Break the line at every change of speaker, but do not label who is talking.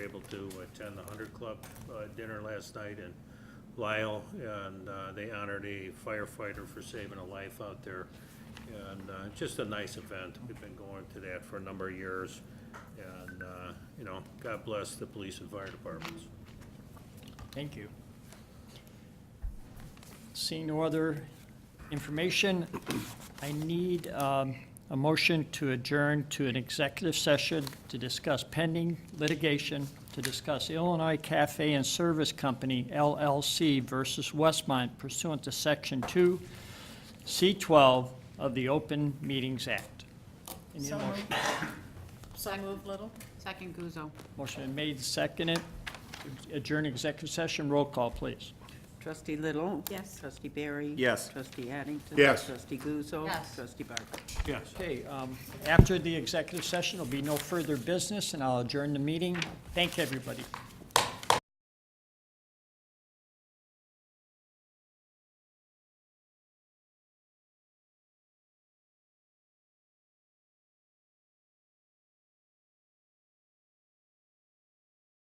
able to attend the Hundred Club uh, dinner last night in Lyle, and uh, they honored a firefighter for saving a life out there. And uh, just a nice event. We've been going to that for a number of years. And, uh, you know, God bless the police and fire departments.
Thank you. Seeing no other information, I need um, a motion to adjourn to an executive session to discuss pending litigation, to discuss Illinois Cafe and Service Company LLC versus Westmont pursuant to Section 2, C12 of the Open Meetings Act. Any
So
motion?
moved. So moved, Little?
Second Guzzo.
Motion been made, seconded. Adjourn executive session. Roll call, please.
Trustee Little?
Yes.
Trustee Barry?
Yes.
Trustee Addington?
Yes.
Trustee Guzzo?
Yes.
Trustee Barker?
Okay, um, after the executive session, there'll be no further business, and I'll adjourn the meeting. Thank everybody.